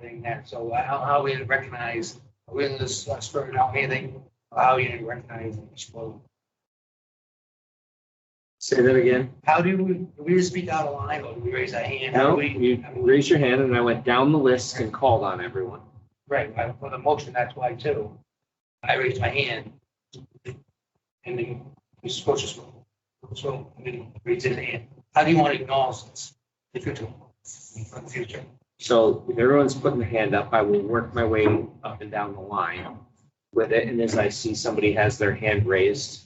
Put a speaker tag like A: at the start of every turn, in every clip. A: anything that, so uh, how, how we recognize, when this uh, spirit out meeting, how you recognize and explode.
B: Say that again.
A: How do we, do we just speak out of line or do we raise our hand? How do
B: No,
A: we-
B: you
A: I mean,
B: raised your hand and I went down the list and called on everyone.
A: Right, I- for the motion, that's why too. I raised my hand. And then Mrs. Scotia spoke. So, I mean, raised his hand. How do you want to acknowledge this? If you do, for the future.
B: So if everyone's putting their hand up, I will work my way up and down the line with it. And as I see somebody has their hand raised,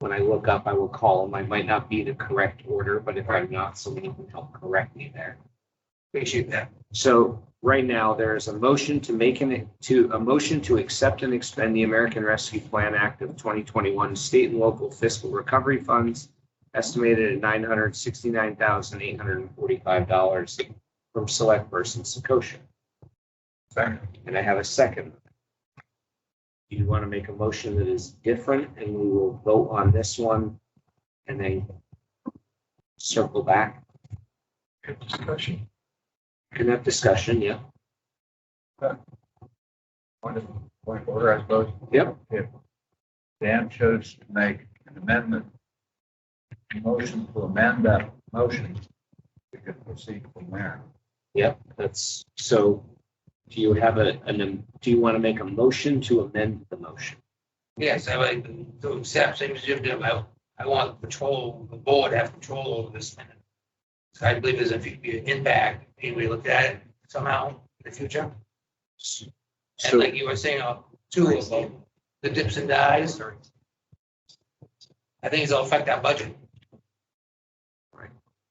B: when I look up, I will call them. I might not be the correct order, but if I'm not, somebody can help correct me there.
A: Appreciate that.
B: So right now, there is a motion to make an, to, a motion to accept and expend the American Rescue Plan Act of 2021 state and local fiscal recovery funds estimated at $969,845 from select person Sakosha.
A: Sorry.
B: And I have a second. You want to make a motion that is different and we will vote on this one and then circle back,
C: Good discussion.
B: Can have discussion, yeah.
C: Point of, point of order, I suppose.
B: Yep.
C: If Dan chose to make an amendment, a motion to amend that motion, we could proceed from there.
B: Yep, that's, so do you have a, an, um, do you want to make a motion to amend the motion?
A: Yes, I like to accept, same as Jim did, I, I want control, the board to have control over this. So I believe there's a few, be an impact, and we look at it somehow in the future. And
B: So,
A: like you were saying, uh, two of them, the dips and dies. I think it's all affect our budget.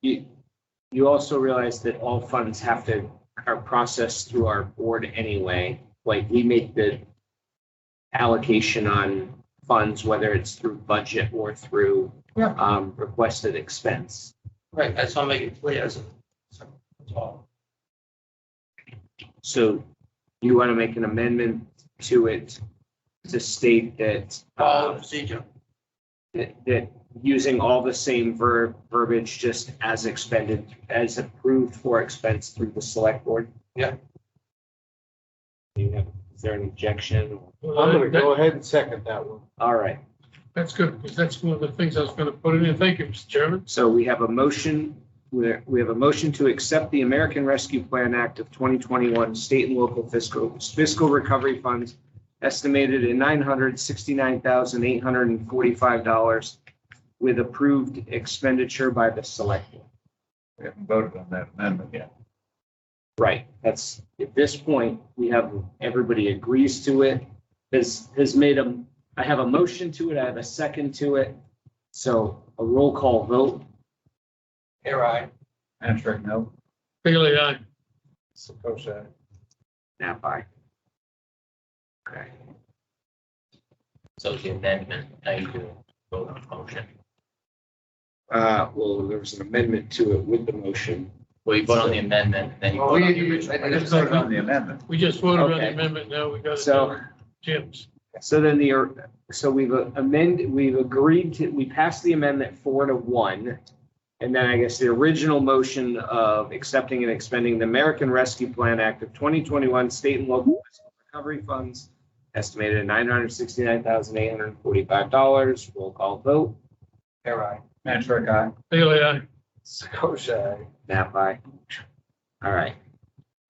B: you, you also realize that all funds have to, are processed through our board anyway. Like we make the allocation on funds, whether it's through budget or through
C: Yeah.
B: um, requested expense.
A: Right, that's why I'm making it clear. so- so That's all.
B: So you want to make an amendment to it to state that.
A: Follow
B: uh,
A: the procedure.
B: that, that using all the same verb, verbiage, just as expended, as approved for expense through the select board?
A: Yeah.
B: Do you have, is there an objection?
D: I'm gonna go ahead and second that one.
B: All right,
D: That's good, because that's one of the things I was gonna put in. there. Thank you, Mr. Chairman.
B: so we have a motion, we're- we have a motion to accept the American Rescue Plan Act of 2021 state and local fiscal, fiscal recovery funds estimated at $969,845 with approved expenditure by the select board.
C: We haven't voted on that amendment yet.
B: Right, that's, at this point, we have, everybody agrees to it, has, has made a, I have a motion to it, I have a second to it. So a roll call vote,
A: Here I,
C: Answer, no.
D: Bailey, aye.
C: Suppose that.
B: nap aye. Okay,
E: So the amendment, now you do vote on the motion.
B: uh, well, there was an amendment to it with the motion.
E: Well, you vote on the amendment, then you
A: Well,
E: vote on
A: we-
E: the
A: we-
E: original.
C: I just voted on the amendment.
D: We just voted on
B: Okay.
D: the amendment, now we got it
B: So-
D: down. Jim's.
B: So then the, so we've amended, we've agreed to, we passed the amendment four to one. And then I guess the original motion of accepting and expending the American Rescue Plan Act of 2021 state and local fiscal recovery funds estimated at $969,845. Roll call vote.
A: here I.
C: Answer, guy.
D: Bailey, aye.
C: Sakosha.
B: Nap aye. All right.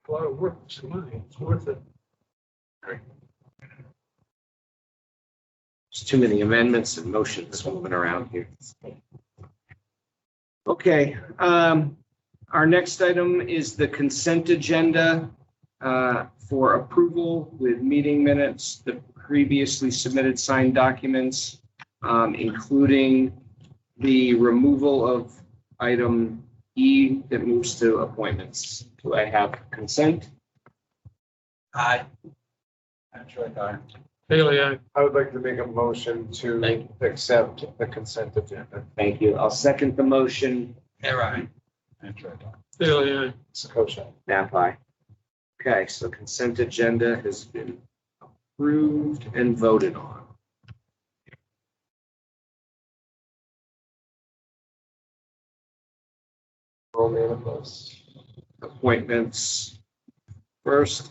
D: A lot of work, some money, it's worth it.
B: There's too many amendments and motions moving around here. Okay, um, our next item is the consent agenda uh, for approval with meeting minutes, the previously submitted signed documents, um, including the removal of item E that moves to appointments. Do I have consent?
A: Aye.
C: Answer, guy.
D: Bailey, aye.
F: I would like to make a motion to
E: Thank
F: accept the consent agenda.
B: Thank you. I'll second the motion.
A: Here I.
C: Answer, guy.
D: Bailey, aye.
F: Sakosha.
B: Napa. Okay, so consent agenda has been approved and voted on.
F: Roll manifest.
B: Appointments first.